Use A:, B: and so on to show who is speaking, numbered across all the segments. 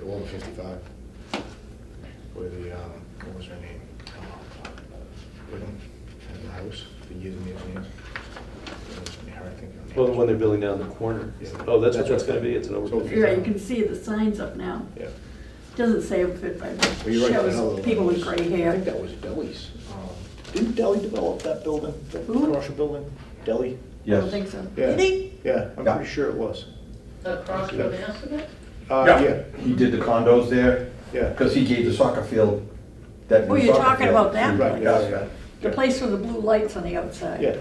A: eleven fifty-five. Where the, um, what was her name? Whitman, had the house, the years and years and years. It was her, I think. her name
B: Well,
A: was-
B: when they're building down the corner.
A: Yeah.
B: Oh, that's what
A: That's
B: that's
A: what
B: gonna be,
A: that-
B: it's an
A: so
B: overbuild.
A: if you're-
C: Yeah, you can see the signs up now.
A: Yeah.
C: Doesn't say if it, but
A: Well, you're right, that other
C: shows
A: one
C: people with
A: was-
C: gray
A: I think
C: hair.
A: that was Deli's. Um, Didn't Deli develop that building, the
C: Who?
A: commercial building? Deli?
C: I don't think so.
A: Yeah.
C: Did he?
A: Yeah, I'm
D: Yeah.
A: pretty sure it was.
E: Across from Massabit?
A: Uh, yeah,
D: He did the condos there,
A: yeah.
D: because he gave the soccer field that.
C: Oh,
D: new
C: you're
D: soccer
C: talking
D: field.
C: about that
A: Right,
C: place?
A: yeah, yeah.
C: The place with the blue lights on the outside?
A: Yeah.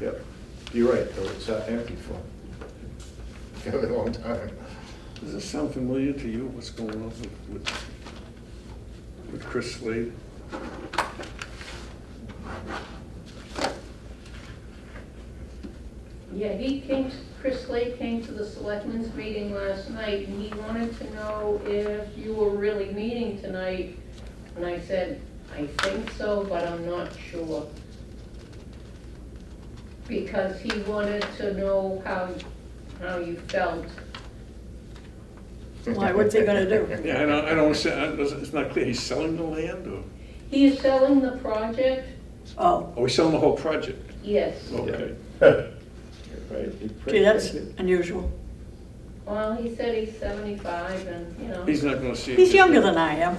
A: Yep, you're right, though, it's uh, empty for a very long time.
F: Does this sound familiar to you, what's going on with, with, with Chris Slade?
E: Yeah, he came, to- Chris Slade came to the selectmen's meeting last night, and he wanted to know if you were really meeting tonight. And I said, I think so, but I'm not sure. Because he wanted to know how, how you felt.
C: Why, what's he gonna do?
F: Yeah, I don't, I don't, see- I- it's not clear, he's selling the land, or,
E: He is selling the project?
C: Oh,
F: oh, he's selling the whole project,
E: Yes.
F: okay.
A: Right, he
C: gee, that's
A: pretty-
C: unusual.
E: Well, he said he's seventy-five and, you know.
F: He's not gonna see. it.
C: He's younger than I am,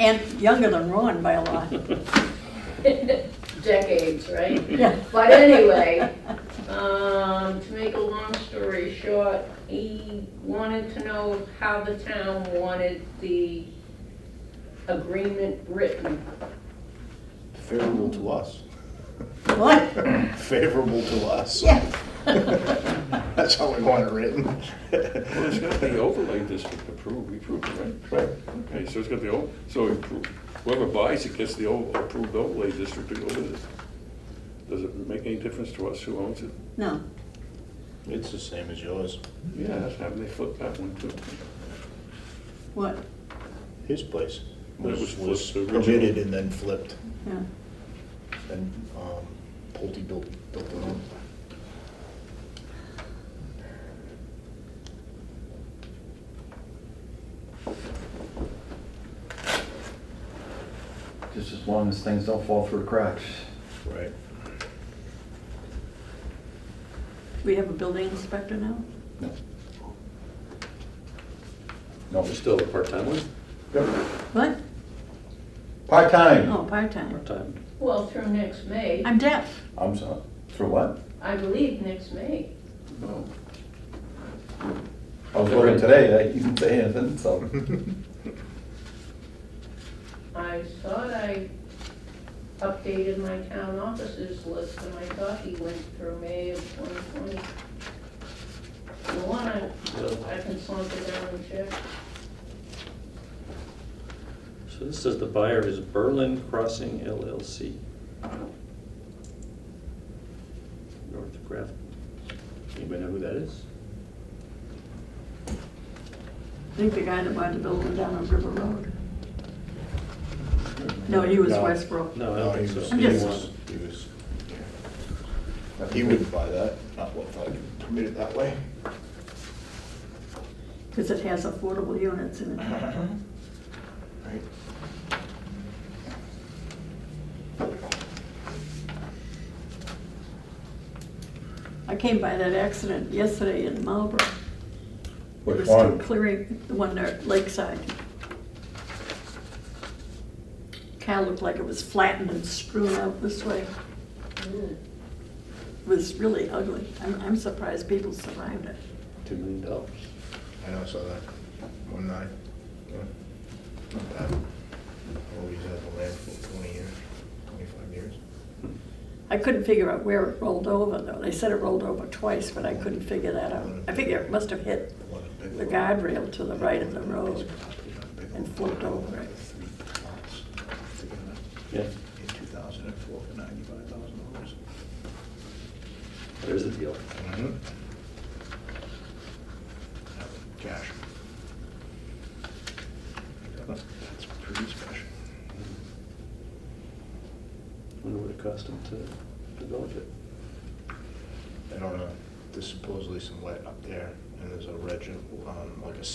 C: and younger than Ron by a lot.
E: decades, right?
C: Yeah.
E: But anyway, um, to make a long story short, he wanted to know how the town wanted the agreement written.
A: Favorable to us.
C: What?
A: Favorable to us.
C: Yeah.
A: That's how we want it written.
F: Well, it's gotta be overlay district approved, we approved, it, right?
A: Right,
F: Okay, so it's got the old, so appro- whoever buys it gets the old approved overlay district to go with it. Does it make any difference to us who owns it?
C: No,
A: it's the same as yours.
F: Yeah, that's happened, they flipped that one too.
C: what?
A: His place
F: That
A: was,
F: was
A: was
F: flipped
A: permitted
F: originally.
A: and then flipped,
C: Yeah.
A: and, um, Pulte built, built it on.
D: Just as long as things don't fall through the cracks.
A: Right.
C: We have a building inspector now?
D: No,
B: You're still a part-time one?
C: What?
D: part-time.
C: Oh, part-time.
B: Part-time.
E: Well, through next May,
C: I'm deaf.
D: I'm sorry, for what?
E: I believe next May.
F: No.
D: I was looking today, I didn't say anything, so.
E: I thought I updated my town offices list, and I thought he went through May of twenty twenty. The one I, I can saunter down and check.
B: So this says the buyer is Berlin Crossing LLC. North Graf. Anybody know who that is?
C: I think the guy that bought the building down on River Road. No, he was
A: No.
C: Westbrook.
B: No, I
A: No,
B: don't
A: he
B: think so.
A: was,
C: I'm
A: he
C: just-
A: was, he was, he wouldn't buy that, not what, if I could permit it that way.
C: Because it has affordable units in it.
A: Right.
C: I came by that accident yesterday in Marlboro. It
D: Which
C: was still
D: one?
C: Clearing, the one there at Lakeside. Car looked like it was flattened and strewn out this way.
E: Ooh.
C: It was really ugly. I'm, I'm surprised people survived it.
B: Two million dollars.
A: I know, I saw that, one night. Yeah. Not bad. Always had the land for twenty years, twenty-five years.
C: I couldn't figure out where it rolled over though. They said it rolled over twice, but I couldn't figure that out. I figure it must have hit
A: The one in Bigelow.
C: the guardrail to the right of the road.
A: and
C: and flipped over it.
B: Yeah,
A: In two thousand and four for ninety-five thousand dollars.
B: there's a deal.
A: Cash. That's pretty special.
B: Wonder what it cost them to develop it.
A: I don't know, there's supposedly some wet up there, and there's a ledge, of, um, like a